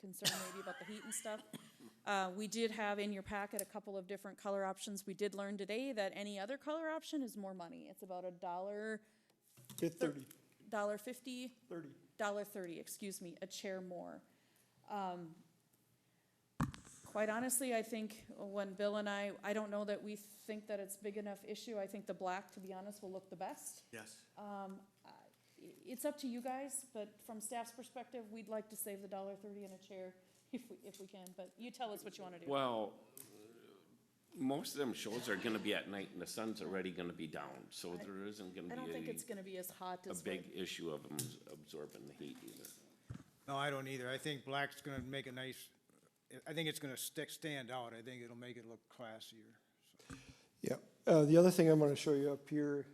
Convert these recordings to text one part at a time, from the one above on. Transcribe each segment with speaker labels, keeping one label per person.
Speaker 1: concern maybe about the heat and stuff. Uh, we did have in your packet a couple of different color options. We did learn today that any other color option is more money. It's about a dollar,
Speaker 2: Fifth thirty,
Speaker 1: dollar fifty,
Speaker 2: thirty.
Speaker 1: dollar thirty, excuse me, a chair more. Um, Quite honestly, I think when Bill and I, I don't know that we think that it's big enough issue. I think the black, to be honest, will look the best.
Speaker 2: Yes.
Speaker 1: Um, I- i- it's up to you guys, but from staff's perspective, we'd like to save the dollar thirty in a chair if we, if we can, but you tell us what you wanna do.
Speaker 3: Well, most of them shows are gonna be at night and the sun's already gonna be down, so there isn't
Speaker 1: I
Speaker 3: gonna
Speaker 1: don't think
Speaker 3: be
Speaker 1: it's gonna be as hot
Speaker 3: a, a
Speaker 1: as
Speaker 3: big
Speaker 1: what,
Speaker 3: issue of them absorbing the heat either.
Speaker 4: No, I don't either. I think black's gonna make a nice, I think it's gonna stick, stand out. I think it'll make it look classier.
Speaker 2: Yeah, uh, the other thing I'm gonna show you up here.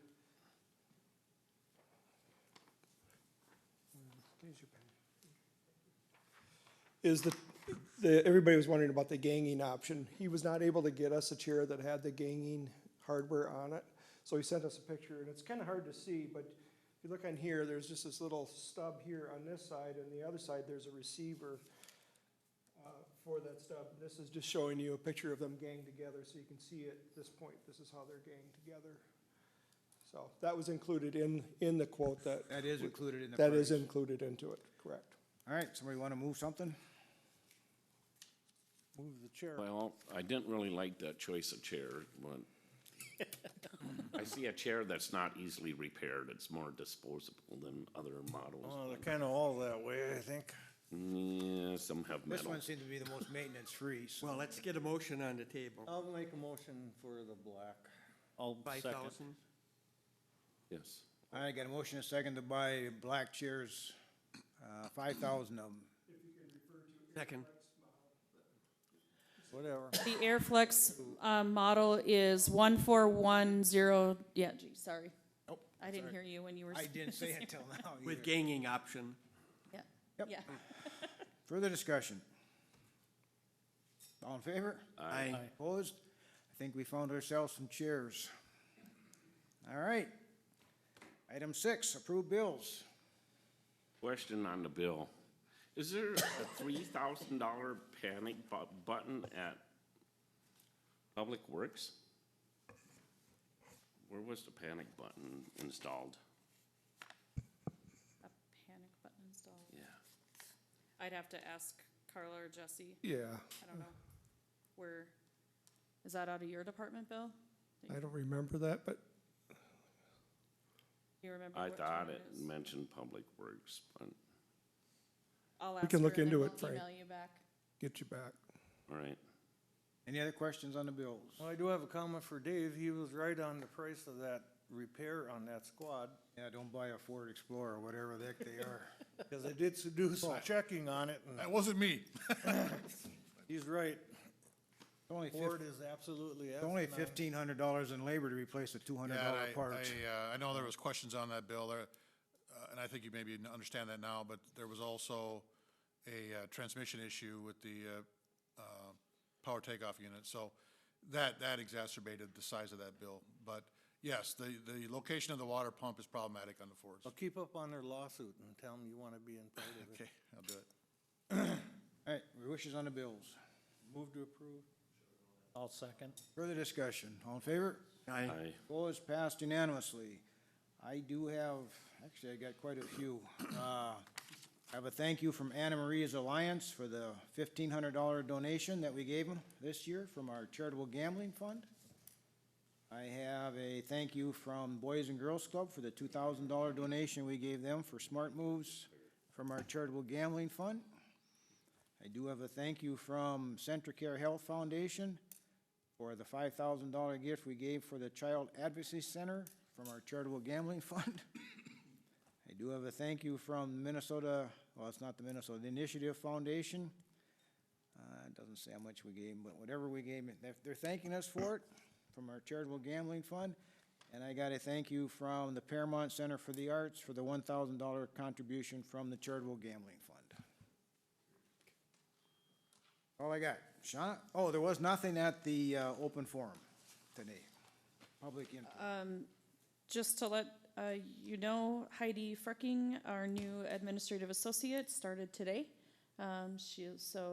Speaker 2: Is the, the, everybody was wondering about the ganging option. He was not able to get us a chair that had the ganging hardware on it. So he sent us a picture and it's kinda hard to see, but if you look on here, there's just this little stub here on this side and the other side, there's a receiver uh, for that stuff. This is just showing you a picture of them ganged together, so you can see at this point, this is how they're ganged together. So that was included in, in the quote that,
Speaker 4: That is included in the price.
Speaker 2: that is included into it, correct.
Speaker 4: All right, somebody wanna move something? Move the chair.
Speaker 3: Well, I didn't really like that choice of chair, but I see a chair that's not easily repaired, it's more disposable than other models.
Speaker 5: Well,
Speaker 4: Oh,
Speaker 5: they're kind of all that way, I think.
Speaker 3: Yeah, some have
Speaker 4: This
Speaker 3: metal.
Speaker 4: one seems to be the most maintenance-free, so.
Speaker 6: Well, let's get a motion on the table.
Speaker 5: I'll make a motion for the black.
Speaker 7: I'll
Speaker 6: Five
Speaker 7: second.
Speaker 6: thousand?
Speaker 3: Yes,
Speaker 4: All right, got a motion and a second to buy black chairs, uh, five thousand of them.
Speaker 6: Second.
Speaker 5: Whatever.
Speaker 1: the Airflex, um, model is one four one zero, yeah, gee, Oh, sorry.
Speaker 4: Nope,
Speaker 1: I didn't
Speaker 4: sorry.
Speaker 1: hear you when you were.
Speaker 4: I didn't say it till now
Speaker 6: With
Speaker 4: either.
Speaker 6: ganging option.
Speaker 1: Yeah,
Speaker 4: Yep.
Speaker 1: yeah.
Speaker 4: Further discussion? All in favor?
Speaker 6: Aye.
Speaker 4: Opposed? I think we found ourselves some chairs. All right. Item six, approve bills.
Speaker 3: question on the bill. Is there a three thousand dollar panic bu- button at Public Works? Where was the panic button installed?
Speaker 1: A panic button installed.
Speaker 3: Yeah.
Speaker 1: I'd have to ask Carla or Jesse,
Speaker 2: Yeah,
Speaker 1: I don't know. Where, is that out of your department, Bill?
Speaker 2: I don't remember that, but
Speaker 1: You remember
Speaker 3: I
Speaker 1: which one
Speaker 3: thought it
Speaker 1: is?
Speaker 3: mentioned Public Works, but,
Speaker 1: I'll
Speaker 2: We can
Speaker 1: ask her
Speaker 2: look
Speaker 1: and then
Speaker 2: into
Speaker 1: we'll
Speaker 2: it, Frank.
Speaker 1: Email you back.
Speaker 2: get you back.
Speaker 3: all right.
Speaker 4: Any other questions on the bills?
Speaker 5: Well, I do have a comment for Dave. He was right on the price of that repair on that squad.
Speaker 4: Yeah, don't buy a Ford Explorer, whatever the heck they are.
Speaker 5: Because I did s- do some checking on it and
Speaker 7: That wasn't me.
Speaker 5: he's right.
Speaker 4: It's Only
Speaker 5: Ford uh,
Speaker 4: fif-
Speaker 5: is absolutely.
Speaker 4: it's only
Speaker 5: asking on it.
Speaker 4: fifteen hundred dollars in labor to replace a two hundred
Speaker 7: Yeah,
Speaker 4: dollar
Speaker 7: and I, I,
Speaker 4: part.
Speaker 7: uh, I know there was questions on that bill there, uh, and I think you maybe n- understand that now, but there was also a, uh, transmission issue with the, uh, uh, power takeoff unit, so that, that exacerbated the size of that bill. But yes, the, the location of the water pump is problematic on the Fords.
Speaker 5: Well, keep up on their lawsuit and tell them you want to be in part of it.
Speaker 7: Okay, I'll do it.
Speaker 4: All right, your wishes on the bills.
Speaker 5: Move to approve. I'll second.
Speaker 4: Further discussion, all in favor?
Speaker 6: Aye.
Speaker 3: I,
Speaker 4: Opposed, passed unanimously. I do have, actually, I got quite a few. Uh, I have a thank you from Anna Maria's Alliance for the fifteen hundred dollar donation that we gave them this year from our charitable gambling fund. I have a thank you from Boys and Girls Club for the two thousand dollar donation we gave them for Smart Moves from our charitable gambling fund. I do have a thank you from Centricare Health Foundation for the five thousand dollar gift we gave for the Child Advocacy Center from our charitable gambling fund. I do have a thank you from Minnesota, well, it's not the Minnesota, the Initiative Foundation. Uh, it doesn't say how much we gave, but whatever we gave, they're, they're thanking us for it from our charitable gambling fund. And I got a thank you from the Paramount Center for the Arts for the one thousand dollar contribution from the charitable gambling fund. All I got. Shauna, oh, there was nothing at the uh, open forum today. Public input.
Speaker 1: Just to let uh, you know, Heidi Frecking, our new administrative associate, started today. Um, she, so